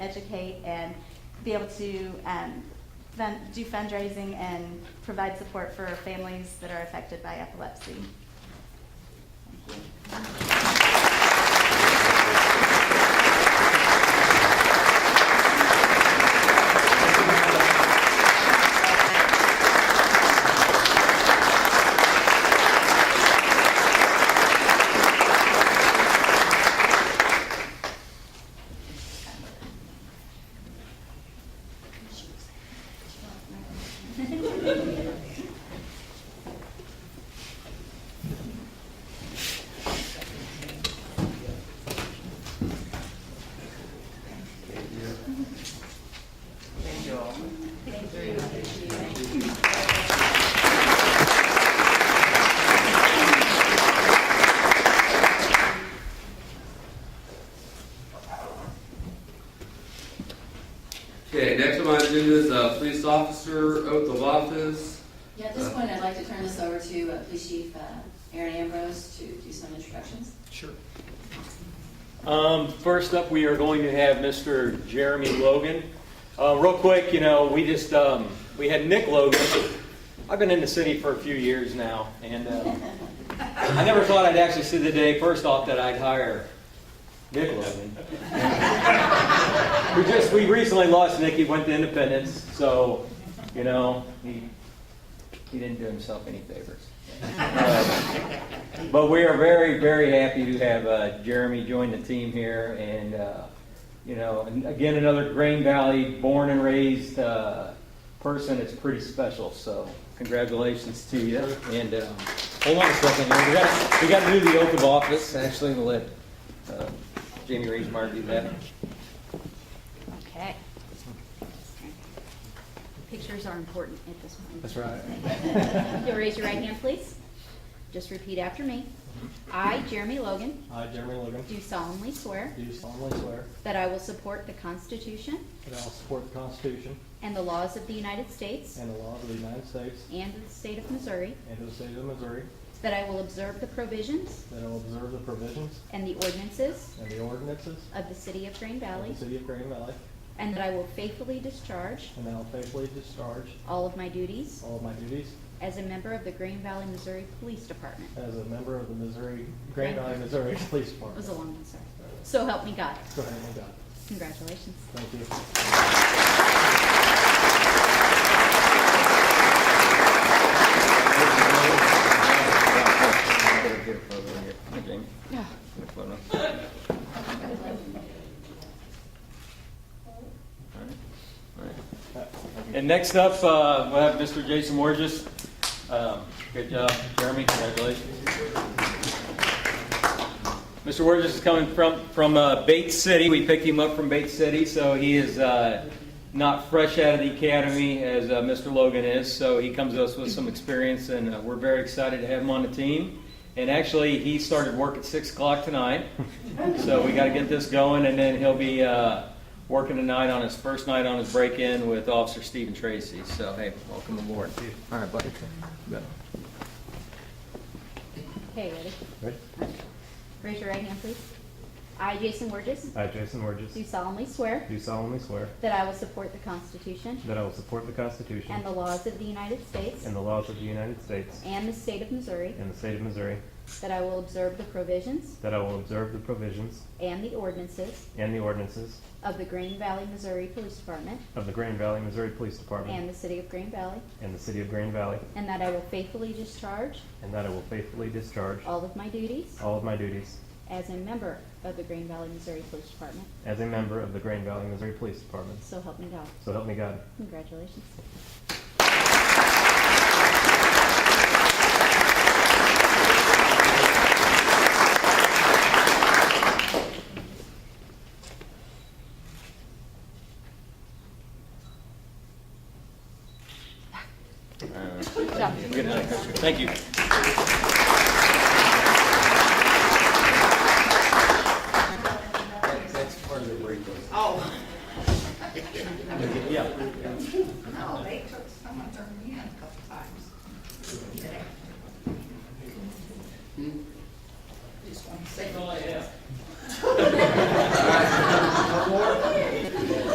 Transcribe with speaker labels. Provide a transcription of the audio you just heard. Speaker 1: educate and be able to um, fun, do fundraising and provide support for families that are affected by epilepsy.
Speaker 2: Thank you all.
Speaker 3: Okay, next on my agenda is uh, police officer oath of office.
Speaker 4: Yeah, at this point, I'd like to turn this over to uh, Police Chief uh, Aaron Ambrose to do some introductions.
Speaker 5: Sure. Um, First up, we are going to have Mr. Jeremy Logan. Uh, Real quick, you know, we just, um, we had Nick Logan. I've been in the city for a few years now, and uh, I never thought I'd actually see the day, first off, that I'd hire Nick Logan. We just, we recently lost Nick, he went to Independence, so, you know, he, he didn't do himself any favors. Uh, but we are very, very happy to have uh, Jeremy join the team here, and uh, you know, and again, another Green Valley born and raised uh, person. It's pretty special. So, congratulations to you. And um, hold on a second, here. we got we got to do the oath of office. Actually, we'll let uh, Jamie Reesmeyer do that.
Speaker 1: Okay.
Speaker 6: Pictures are important at this point.
Speaker 5: right.
Speaker 6: You'll raise your right hand, please. Just repeat after me. I, Jeremy Logan,
Speaker 7: I, Jeremy Logan,
Speaker 6: do solemnly swear
Speaker 7: do solemnly swear
Speaker 6: that I will support the Constitution
Speaker 7: that I will support the Constitution
Speaker 6: and the laws of the United States
Speaker 7: and the laws of the United States
Speaker 6: and of the state of Missouri,
Speaker 7: and of the state of Missouri,
Speaker 6: that I will observe the provisions
Speaker 7: that I will observe the provisions
Speaker 6: and the ordinances
Speaker 7: and the ordinances
Speaker 6: of the city of Green
Speaker 7: of
Speaker 6: Valley,
Speaker 7: the city of Green Valley,
Speaker 6: and that I will faithfully discharge
Speaker 7: and that I will faithfully discharge
Speaker 6: all of my duties
Speaker 7: all of my duties
Speaker 6: as a member of the Green Valley, Missouri Police Department.
Speaker 7: as a member of the Missouri, Green Valley, Missouri Police
Speaker 6: It was a
Speaker 7: Department.
Speaker 6: long one, sir. So help me God.
Speaker 7: Go ahead and go.
Speaker 6: Congratulations.
Speaker 7: Thank you.
Speaker 5: Get a photo here, Jamie. Get a photo. All right. All right. And next up, uh, we'll have Mr. Jason Morges. Um, Good job, Jeremy, congratulations. Mr. Wurgis is coming from, from uh, Bates City. We picked him up from Bates City, so he is uh, not fresh out of the academy as uh, Mr. Logan is. So he comes to us with some experience, and uh, we're very excited to have him on the team. And actually, he started work at 6 o'clock tonight, so we got to get this going, and then he'll be uh, working tonight on his first night on his break-in with Officer Stephen Tracy. So, hey, welcome aboard. All right, buddy.
Speaker 6: Okay, ready?
Speaker 8: Ready?
Speaker 6: Raise your right hand, please. I, Jason Burgess,
Speaker 8: I, Uh, Jason
Speaker 6: do
Speaker 8: Burgess,
Speaker 6: solemnly swear
Speaker 8: do solemnly swear
Speaker 6: that I will support the Constitution
Speaker 8: that I will support the Constitution
Speaker 6: and the laws of the United States
Speaker 8: and the laws of the United States
Speaker 6: and the state of Missouri,
Speaker 8: and the state of Missouri,
Speaker 6: that I will observe the provisions
Speaker 8: that I will observe the provisions
Speaker 6: and the ordinances
Speaker 8: and the ordinances
Speaker 6: of the Green Valley, Missouri Police Department
Speaker 8: of the Green Valley, Missouri Police
Speaker 6: and
Speaker 8: Department
Speaker 6: the city of Green Valley,
Speaker 8: and the city of Green Valley,
Speaker 6: and that I will faithfully discharge
Speaker 8: and that I will faithfully discharge
Speaker 6: all of my duties
Speaker 8: all of my duties
Speaker 6: as a member of the Green Valley, Missouri Police Department.
Speaker 8: as a member of the Green Valley, Missouri Police Department.
Speaker 6: So help me God.
Speaker 8: So help me God.
Speaker 6: Congratulations. Good job.
Speaker 5: Good night. Thank you.
Speaker 3: That's part of the break.
Speaker 2: Oh.
Speaker 5: Yeah.
Speaker 2: No, they took, someone turned me in a couple times. Just want to say.
Speaker 3: One more?